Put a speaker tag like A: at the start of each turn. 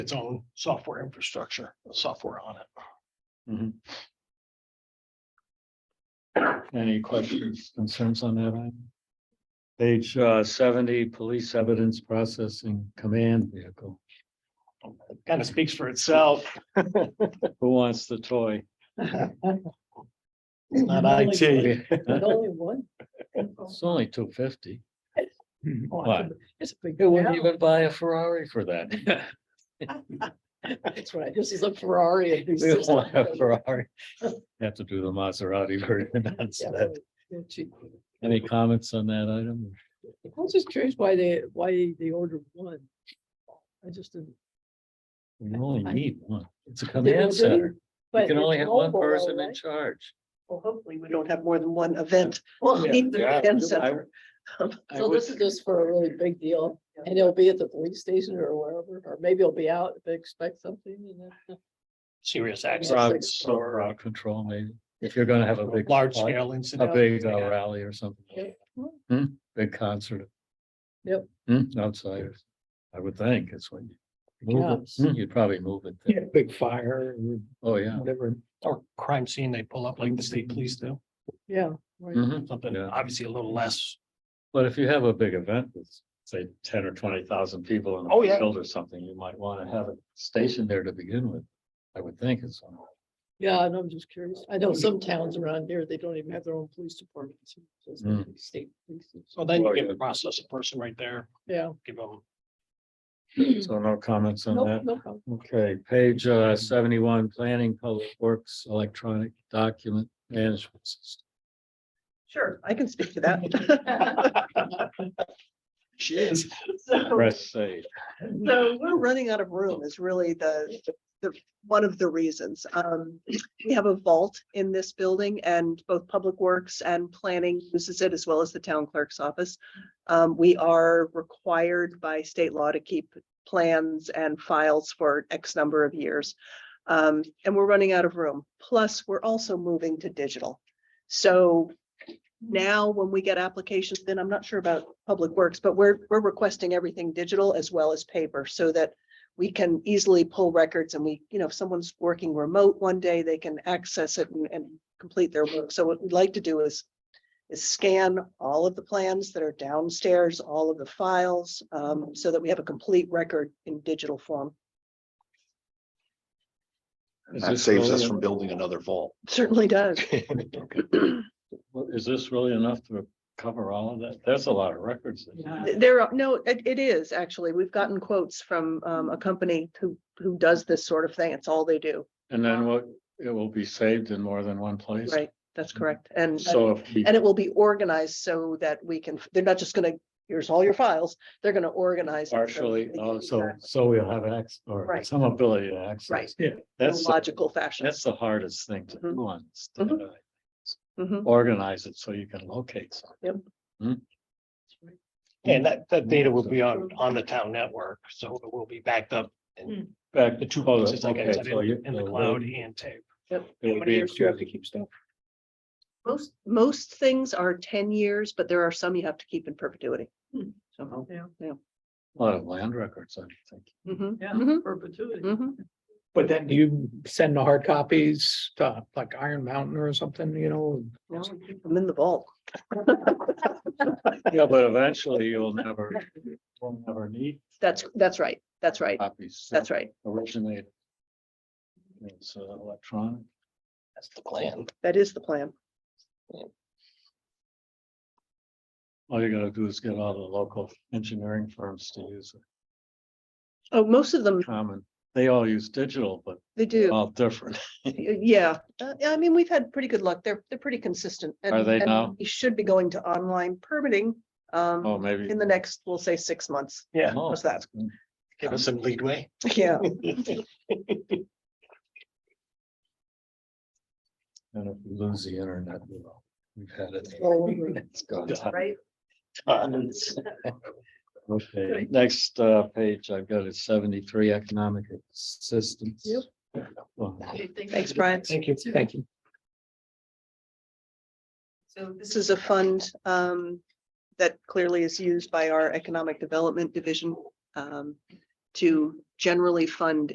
A: its own software infrastructure, software on it.
B: Any questions, concerns on that? item? Page uh, seventy, police evidence processing command vehicle.
A: Kind of speaks for itself.
B: Who wants the toy?
A: It's not IT.
C: But only one.
B: It's only two fifty. Hmm,
A: Well,
C: It's a big.
B: Who wouldn't
C: town.
B: even buy a Ferrari for that?
C: That's right. This is a Ferrari. and he's
B: We
C: just-
B: don't have Ferrari. Have to do the Maserati version
C: Yeah,
B: instead.
C: they're cheap.
B: Any comments on that item?
C: I was just curious why they, why they ordered one. I just didn't.
B: We only need one. It's a
C: Didn't
B: command
C: do
B: center. You
C: but
B: can
C: it's
B: only have one
C: mobile,
B: person in
C: right?
B: charge.
D: Well, hopefully we don't have more than one event.
C: Well,
D: We need the
B: Yeah.
D: event center.
B: I
C: So
B: would-
C: this is just for a really big deal and it'll be at the police station or wherever, or maybe it'll be out if they expect something and then.
A: Serious
B: Crowd-
A: accidents
B: so
A: or
B: crowd control maybe, if you're gonna have a big.
A: large
B: party.
A: scale
B: A
A: incident.
B: big uh, rally or something.
C: Yep.
B: Hmm, big concert.
C: Yep.
B: Hmm, outsiders, I would think, it's when you. Move
C: Yes.
B: it, Hmm, you'd probably move it. there.
A: Yeah, big fire or
B: Oh, yeah.
A: whatever, or crime scene, they pull up like the state police do,
C: Yeah, right.
B: Mhm.
A: something
B: Yeah.
A: obviously a little less.
B: But if you have a big event with, say, ten or twenty thousand people in
A: Oh,
B: a
A: yeah.
B: field or something, you might wanna have it stationed there to begin with. I would think it's,
C: Yeah, and I'm just curious. I know some towns around here, they don't even have their own police departments. so it's
B: Mm.
C: State. police.
A: So then
B: Well,
A: you
B: yeah.
A: can process a person right there,
C: Yeah.
A: give them
B: so no comments on
C: Nope,
B: that.
C: no problem.
B: Okay, page uh, seventy-one, planning, public works, electronic document management. system.
D: Sure, I can speak to that.
A: She is.
D: So-
B: Press save.
D: So we're running out of room is really the, the, one of the reasons. Um, we have a vault in this building and both Public Works and Planning uses it as well as the town clerk's office. Um, we are required by state law to keep plans and files for X number of years. Um, and we're running out of room. Plus, we're also moving to digital. So now when we get applications, then I'm not sure about Public Works, but we're, we're requesting everything digital as well as paper so that we can easily pull records and we, you know, if someone's working remote one day, they can access it and, and complete their work. So what we'd like to do is is scan all of the plans that are downstairs, all of the files, um, so that we have a complete record in digital form.
B: Is
E: That
B: this
E: saves
B: really
E: us
B: a-
E: from building another vault.
D: Certainly does.
B: Well, Is this really enough to cover all of that? That's a lot of records.
D: Th- There are, no, it, it is actually. We've gotten quotes from, um, a company who, who does this sort of thing. It's all they do.
B: And then what, it will be saved in more than one place?
D: Right, that's correct. And,
B: Mm-hmm. So if we
D: and it will be organized so that we can, they're not just gonna, here's all your files, they're gonna organize. it so
B: partially,
D: they can
B: oh, so,
D: exact-
B: so we'll have access or
D: Right.
B: some ability to access.
D: Right.
B: Yeah.
D: in a
B: That's, the-
D: Logical fashion.
B: that's the hardest thing to
D: Mhm.
B: do on. is to,
D: Mhm.
B: uh,
D: Mhm.
B: Organize it so you can locate. something.
F: Mm-hmm.
A: And that, that data will be on, on the town network, so it will be backed up
B: Back
A: the two
B: oh,
A: places, like I
B: okay,
A: said,
B: so you-
A: in in the
B: uh,
A: cloud and tape.
B: It would be,
A: keep stuff?
D: Most, most things are ten years, but there are some you have to keep in perpetuity. So,
C: Yeah.
D: yeah.
B: a lot of land records, I think.
D: Mhm,
C: Yeah,
D: mhm,
C: perpetuity.
D: mhm.
F: But then do you send the hard copies to like Iron Mountain or something, you know?
D: No, we keep them Mm-hmm. in the vault.
B: Yeah, but eventually you'll never, will never need
D: That's, that's right. That's right.
B: copies.
D: That's right.
B: Originated. It's uh, electronic.
A: That's the plan.
D: That is the plan.
B: All you gotta do is get all the local engineering firms to use it.
D: Oh, most of them,
B: common. They all use digital, but
D: they do.
B: all different.
D: Y- Yeah, Uh, yeah, I mean, we've had pretty good luck. They're, they're pretty consistent. and-
B: Are they
D: and
B: now?
D: We should be going to online permitting
B: Oh,
D: um
B: maybe.
D: in the next, we'll say, six months.
A: Yeah,
B: Oh,
D: what's that?
B: that's good.
A: give us some leadway.
D: Yeah.
B: And if we lose the internet, you know, we've had it.
C: All over it.
B: It's gone.
D: Right.
A: Tons.
B: Okay, next uh, page I've got is seventy-three economic assistance.
C: Yep.
B: Well,
D: Thanks, Brian.
F: Thank you, thank you.
D: So this is a fund um, that clearly is used by our Economic Development Division um, to generally fund